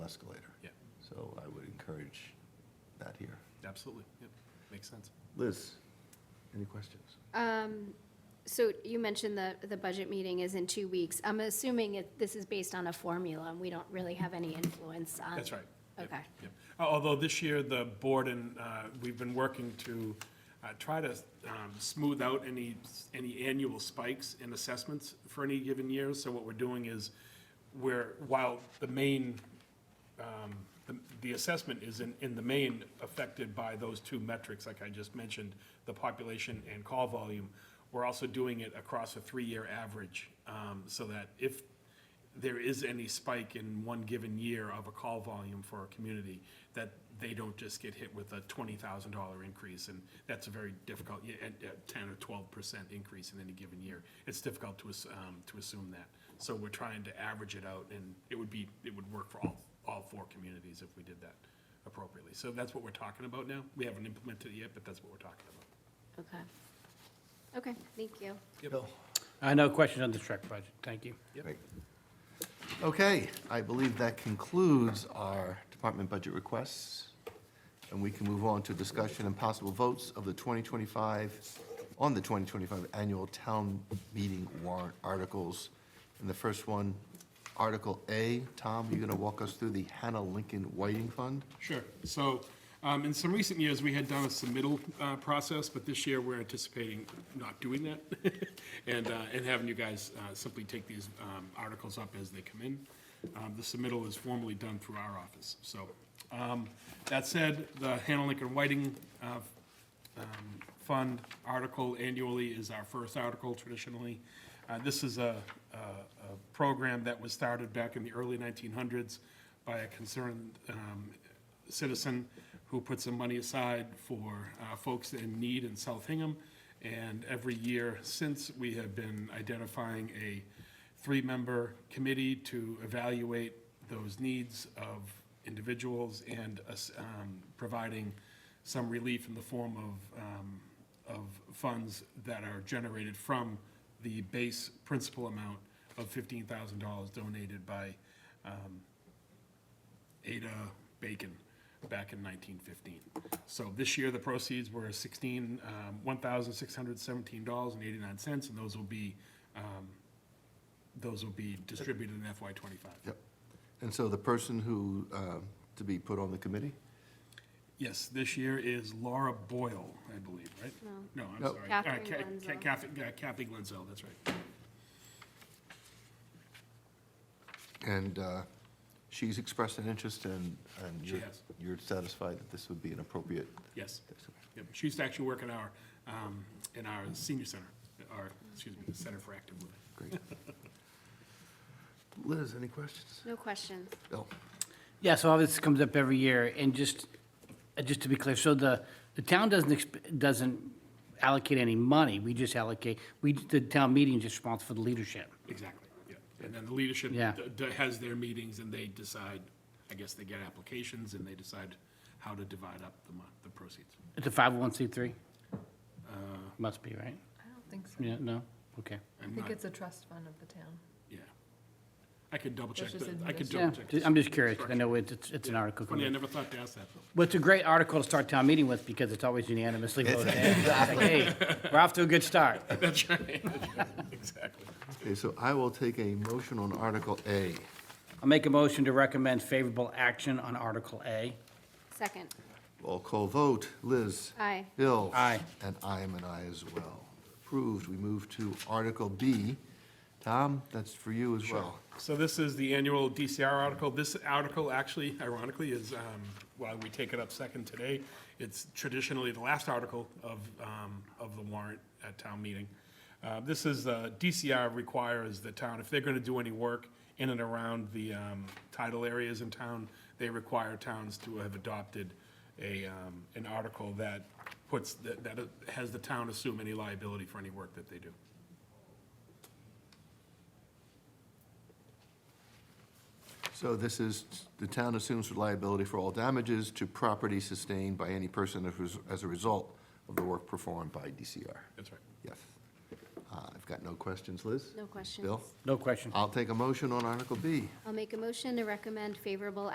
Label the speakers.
Speaker 1: encourage that here.
Speaker 2: Absolutely, yep, makes sense.
Speaker 1: Liz, any questions?
Speaker 3: Um, So you mentioned the, the budget meeting is in two weeks. I'm assuming it, this is based on a formula, and we don't really have any influence on.
Speaker 2: That's right. Yep,
Speaker 3: Um, Okay.
Speaker 2: yep. Al- Although this year, the board and, uh, we've been working to uh, try to um, smooth out any, any annual spikes in assessments for any given year. So what we're doing is, we're, while the main, um, the- the assessment is in, in the main affected by those two metrics, like I just mentioned, the population and call volume, we're also doing it across a three-year average, um, so that if there is any spike in one given year of a call volume for a community, that they don't just get hit with a twenty thousand dollar increase, and that's a very difficult, yeah, and, uh, ten or twelve percent increase in any given year. It's difficult to, ass- um, to assume that, so we're trying to average it out, and it would be, it would work for all, all four communities if we did that appropriately. So that's what we're talking about now, we haven't implemented it yet, but that's what we're talking about.
Speaker 3: Okay. Okay, thank you.
Speaker 1: Bill?
Speaker 4: Uh, No questions on the truck budget, thank you.
Speaker 2: Yep.
Speaker 1: Great. Okay, I believe that concludes our department budget requests, and we can move on to discussion and possible votes of the 2025, on the 2025 annual town meeting warrant articles. And the first one, Article A, Tom, you're going to walk us through the Hannah Lincoln Whiting Fund?
Speaker 2: Sure. So um, in some recent years, we had done a submittal uh, process, but this year, we're anticipating not doing that and, uh, and having you guys uh, simply take these um, articles up as they come in. Um, The submittal is formally done through our office. So um, that said, the Hannah Lincoln Whiting uh, um, fund article annually is our first article traditionally. Uh, This is a, a- a program that was started back in the early 1900s by a concerned um, citizen who put some money aside for uh, folks in need in South Hingham. And every year since, we have been identifying a three-member committee to evaluate those needs of individuals and us, um, providing some relief in the form of, um, of funds that are generated from the base principal amount of fifteen thousand dollars donated by um, Ada Bacon back in 1915. So this year, the proceeds were 16, um, $1,617.89, and those will be, um, those will be distributed in FY '25.
Speaker 1: Yep. And so the person who, uh, to be put on the committee?
Speaker 2: Yes, this year is Laura Boyle, I believe, right? No. I'm
Speaker 1: Nope.
Speaker 2: sorry. Uh,
Speaker 3: Catherine
Speaker 2: Ca- Ca-
Speaker 3: Glenzel.
Speaker 2: Kathy- uh, Kathy Glenzel, that's right.
Speaker 1: And uh, she's expressed an interest, and and
Speaker 2: She
Speaker 1: you're
Speaker 2: has.
Speaker 1: you're satisfied that this would be an appropriate
Speaker 2: Yes. Yep, She used to actually work in our, um, in our senior center, our, excuse me, the Center for Active Living.
Speaker 1: Great. Liz, any questions?
Speaker 3: No questions.
Speaker 1: Bill?
Speaker 4: Yeah, so all this comes up every year, and just, uh, just to be clear, so the, the town doesn't, exp- doesn't allocate any money, we just allocate, we, the town meeting is responsible for the leadership.
Speaker 2: Exactly, yeah. And then the leadership
Speaker 4: Yeah.
Speaker 2: d- d- has their meetings and they decide, I guess they get applications and they decide how to divide up the mon, the proceeds.
Speaker 4: It's a 501c3. Must be, right?
Speaker 5: I don't think so.
Speaker 4: Yeah, no? Okay.
Speaker 5: I
Speaker 2: I'm
Speaker 5: think
Speaker 2: not,
Speaker 5: it's a trust fund of the town.
Speaker 2: yeah. I could double check,
Speaker 5: That's just
Speaker 2: the- I could
Speaker 4: Yeah,
Speaker 2: double check.
Speaker 4: ju-
Speaker 2: the
Speaker 4: I'm just curious, I
Speaker 2: structure.
Speaker 4: know it's, it's- it's an article.
Speaker 2: Funny, I never thought to ask that.
Speaker 4: Well, it's a great article to start town meeting with, because it's always unanimously voted. It's like, Hey, we're off to a good start.
Speaker 2: That's right, exactly.
Speaker 1: Okay, so I will take a motion on Article A.
Speaker 4: I'll make a motion to recommend favorable action on Article A.
Speaker 3: Second,
Speaker 1: Roll call vote. Liz?
Speaker 3: aye.
Speaker 1: Bill?
Speaker 4: Aye.
Speaker 1: And I am an aye as well. Approved. We move to Article B. Tom, that's for you as well.
Speaker 2: So this is the annual DCR article. This article actually ironically is, um, while we take it up second today, it's traditionally the last article of, um, of the warrant at town meeting. Uh, This is, uh, DCR requires the town, if they're going to do any work in and around the um, tidal areas in town, they require towns to have adopted a, um, an article that puts, that that has the town assume any liability for any work that they do.
Speaker 1: So this is, the town assumes liability for all damages to property sustained by any person if- as a result of the work performed by DCR.
Speaker 2: That's right.
Speaker 1: Yes. Uh, I've got no questions. Liz?
Speaker 3: No questions.
Speaker 1: Bill?
Speaker 4: No question.
Speaker 1: I'll take a motion on Article B.
Speaker 3: I'll make a motion to recommend favorable